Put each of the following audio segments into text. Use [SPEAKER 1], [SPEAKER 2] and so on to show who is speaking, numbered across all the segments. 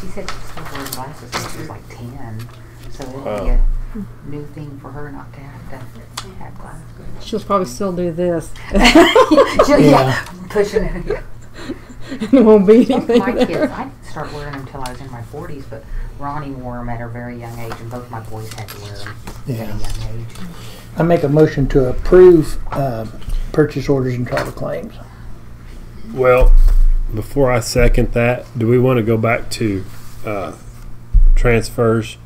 [SPEAKER 1] She said she's still wearing glasses since she was like ten, so it would be
[SPEAKER 2] Wow.
[SPEAKER 1] a new thing for her not to have to have glasses.
[SPEAKER 3] She'll probably still do this.
[SPEAKER 1] She-
[SPEAKER 4] Yeah.
[SPEAKER 1] yeah, pushing it. Yeah.
[SPEAKER 3] it won't be
[SPEAKER 1] Both
[SPEAKER 3] anything
[SPEAKER 1] my
[SPEAKER 3] there.
[SPEAKER 1] kids, I didn't start wearing them till I was in my forties, but Ronnie wore them at a very young age, and both my boys had to wear them at
[SPEAKER 4] Yeah.
[SPEAKER 1] a young age.
[SPEAKER 4] I make a motion to approve uh, purchase orders and travel claims.
[SPEAKER 2] Well, before I second that, do we want to go back to uh, transfers?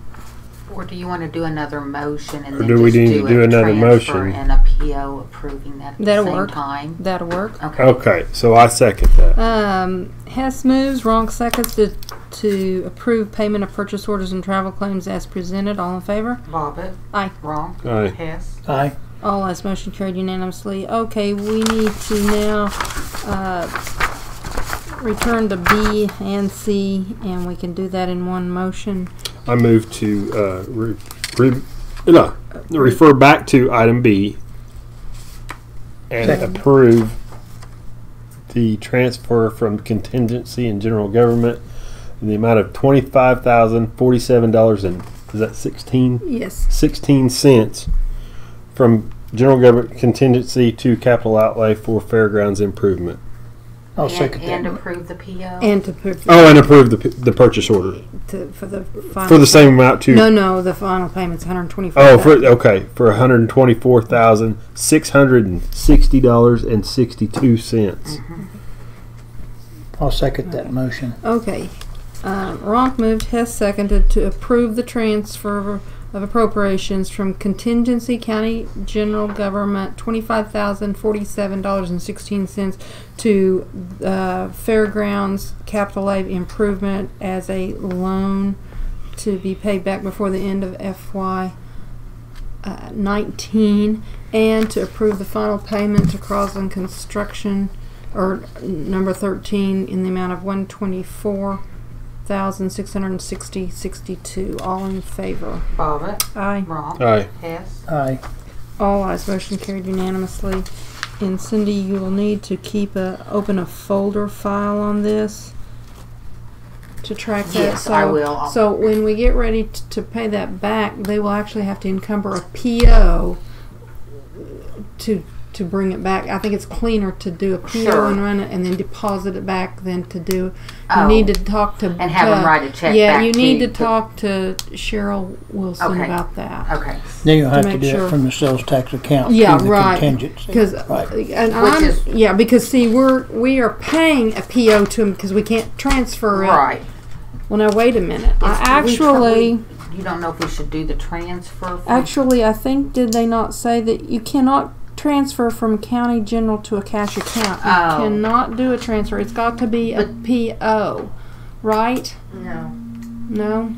[SPEAKER 1] Or do you want to do another motion and
[SPEAKER 2] Or
[SPEAKER 1] then
[SPEAKER 2] do we
[SPEAKER 1] just
[SPEAKER 2] need to
[SPEAKER 1] a
[SPEAKER 2] do another
[SPEAKER 1] transfer
[SPEAKER 2] motion?
[SPEAKER 1] and a PO approving that at
[SPEAKER 3] That'll
[SPEAKER 1] the same
[SPEAKER 3] work.
[SPEAKER 1] time?
[SPEAKER 3] That'll work.
[SPEAKER 1] Okay.
[SPEAKER 2] Okay, so I second that.
[SPEAKER 3] Um, Hess moves, Wrong seconds to, to approve payment of purchase orders and travel claims as presented. All in favor?
[SPEAKER 1] Bobbit.
[SPEAKER 3] Aye.
[SPEAKER 1] Wrong.
[SPEAKER 2] Aye.
[SPEAKER 1] Hess.
[SPEAKER 4] Aye.
[SPEAKER 3] All ayes, motion carried unanimously. Okay, we need to now, uh, return to B and C, and we can do that in one motion.
[SPEAKER 2] I move to uh, re, re, no, refer back to item B and
[SPEAKER 4] Second.
[SPEAKER 2] approve the transfer from contingency and general government in the amount of twenty five thousand forty seven dollars and is that sixteen
[SPEAKER 3] Yes.
[SPEAKER 2] sixteen cents from general government contingency to capital outlay for fairgrounds improvement.
[SPEAKER 4] I'll
[SPEAKER 1] and,
[SPEAKER 4] second
[SPEAKER 1] And
[SPEAKER 4] that.
[SPEAKER 1] approve the PO.
[SPEAKER 3] And to, pr-
[SPEAKER 2] Oh, and approve the, p- the purchase order
[SPEAKER 3] to, for the final.
[SPEAKER 2] for the same amount to
[SPEAKER 3] No, no, the final payment's hundred and twenty-five
[SPEAKER 2] Oh,
[SPEAKER 3] thousand.
[SPEAKER 2] for okay, for one hundred twenty-four thousand six hundred and sixty dollars and sixty-two cents.
[SPEAKER 3] Mm-hmm.
[SPEAKER 4] I'll second that motion.
[SPEAKER 3] Okay. Um, Ronk moved, Hess seconded to approve the transfer of appropriations from contingency county general government twenty-five thousand forty-seven dollars and sixteen cents to uh, fairgrounds capital A improvement as a loan to be paid back before the end of FY uh, nineteen, and to approve the final payment to Crosland Construction or number thirteen in the amount of one twenty-four thousand six hundred and sixty sixty-two. All in favor?
[SPEAKER 1] Bobbit.
[SPEAKER 3] Aye.
[SPEAKER 1] Wrong.
[SPEAKER 2] Aye.
[SPEAKER 1] Hess.
[SPEAKER 4] Aye.
[SPEAKER 3] All ayes. Motion carried unanimously. And Cindy, you will need to keep a open a folder file on this to track that.
[SPEAKER 1] Yes, I
[SPEAKER 3] So-
[SPEAKER 1] will. I'll-
[SPEAKER 3] So when we get ready t- to pay that back, they will actually have to encumber a PO to to bring it back. I think it's cleaner to do a PO
[SPEAKER 1] Sure.
[SPEAKER 3] and run it and then deposit it back than to do.
[SPEAKER 1] Oh.
[SPEAKER 3] You need to talk to
[SPEAKER 1] And have 'em
[SPEAKER 3] to-
[SPEAKER 1] write a check
[SPEAKER 3] Yeah,
[SPEAKER 1] back
[SPEAKER 3] you need
[SPEAKER 1] to-
[SPEAKER 3] to talk to Cheryl Wilson
[SPEAKER 1] Okay.
[SPEAKER 3] about that.
[SPEAKER 1] Okay.
[SPEAKER 4] Then you'll have to
[SPEAKER 3] make
[SPEAKER 4] do
[SPEAKER 3] sure.
[SPEAKER 4] it from the sales tax account
[SPEAKER 3] Yeah,
[SPEAKER 4] to the
[SPEAKER 3] right.
[SPEAKER 4] contingency.
[SPEAKER 3] Because
[SPEAKER 4] Right.
[SPEAKER 3] uh, and
[SPEAKER 1] Which
[SPEAKER 3] I'm
[SPEAKER 1] is-
[SPEAKER 3] yeah because see we're we are paying a PO to him because we can't transfer it.
[SPEAKER 1] Right.
[SPEAKER 3] Well, now wait a minute. I
[SPEAKER 1] It's- we tr-
[SPEAKER 3] actually
[SPEAKER 1] we- You don't know if we should do the transfer. from-
[SPEAKER 3] actually I think did they not say that you cannot transfer from county general to a cash account? You
[SPEAKER 1] Oh.
[SPEAKER 3] cannot do a transfer. It's got to be a PO, right?
[SPEAKER 5] No,
[SPEAKER 3] No.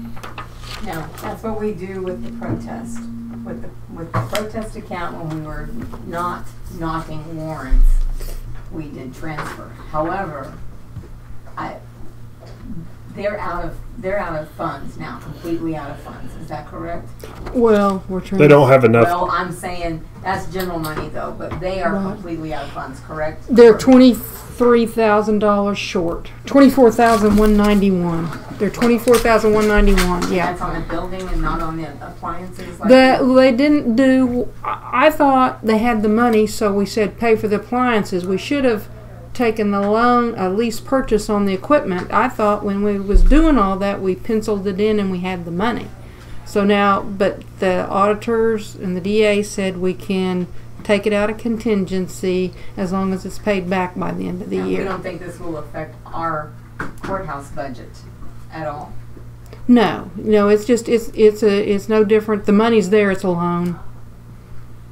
[SPEAKER 5] no, that's what we do with the protest, with the, with the protest account when we were not knocking warrants, we did transfer. However, I, they're out of, they're out of funds now, completely out of funds, is that correct?
[SPEAKER 3] Well, we're trying.
[SPEAKER 2] They don't have enough.
[SPEAKER 5] Well, I'm saying, that's general money though, but they are
[SPEAKER 3] Right.
[SPEAKER 5] completely out of funds, correct?
[SPEAKER 3] They're twenty three thousand dollars short. Twenty four thousand one ninety one. They're twenty four thousand one ninety one. Yeah.
[SPEAKER 5] That's on the building and not on the appliances like?
[SPEAKER 3] The, they didn't do. I I thought they had the money, so we said pay for the appliances. We should have taken the loan, a lease purchase on the equipment. I thought when we was doing all that, we penciled it in and we had the money. So now, but the auditors and the DA said we can take it out of contingency as long as it's paid back by the end of the
[SPEAKER 5] And we
[SPEAKER 3] year.
[SPEAKER 5] don't think this will affect our courthouse budget at all?
[SPEAKER 3] No, no, it's just it's it's a it's no different. The money's there. It's a loan.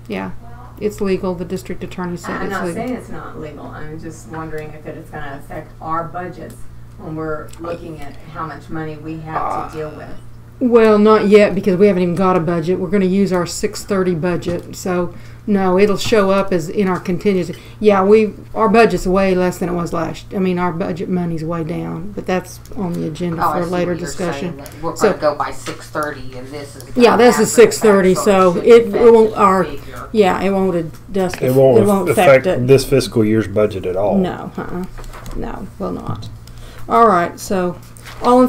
[SPEAKER 3] Yeah, it's legal. The district attorney said
[SPEAKER 5] I'm
[SPEAKER 3] it's
[SPEAKER 5] not
[SPEAKER 3] legal.
[SPEAKER 5] saying it's not legal, I'm just wondering if it's gonna affect our budgets when we're looking at how much money we
[SPEAKER 1] Ah.
[SPEAKER 5] have to deal with.
[SPEAKER 3] Well, not yet because we haven't even got a budget. We're going to use our six thirty budget, so no, it'll show up as in our contingency. Yeah, we our budget's way less than it was last. I mean, our budget money's way down, but that's on the agenda
[SPEAKER 1] Oh, I
[SPEAKER 3] for
[SPEAKER 1] see
[SPEAKER 3] later
[SPEAKER 1] what you're saying,
[SPEAKER 3] discussion.
[SPEAKER 1] that We're
[SPEAKER 3] So-
[SPEAKER 1] gonna go by six thirty and this is.
[SPEAKER 3] Yeah,
[SPEAKER 1] after
[SPEAKER 3] this is
[SPEAKER 1] the fact,
[SPEAKER 3] 6:30, so
[SPEAKER 1] shouldn't
[SPEAKER 3] it
[SPEAKER 1] affect
[SPEAKER 3] won't-
[SPEAKER 1] the
[SPEAKER 3] our-
[SPEAKER 1] figure.
[SPEAKER 3] Yeah, it won't adjust.
[SPEAKER 2] It won't,
[SPEAKER 3] it won't
[SPEAKER 2] affect
[SPEAKER 3] affect it.
[SPEAKER 2] this fiscal year's budget at all.
[SPEAKER 3] No, uh-uh. no, will not. All right, so all in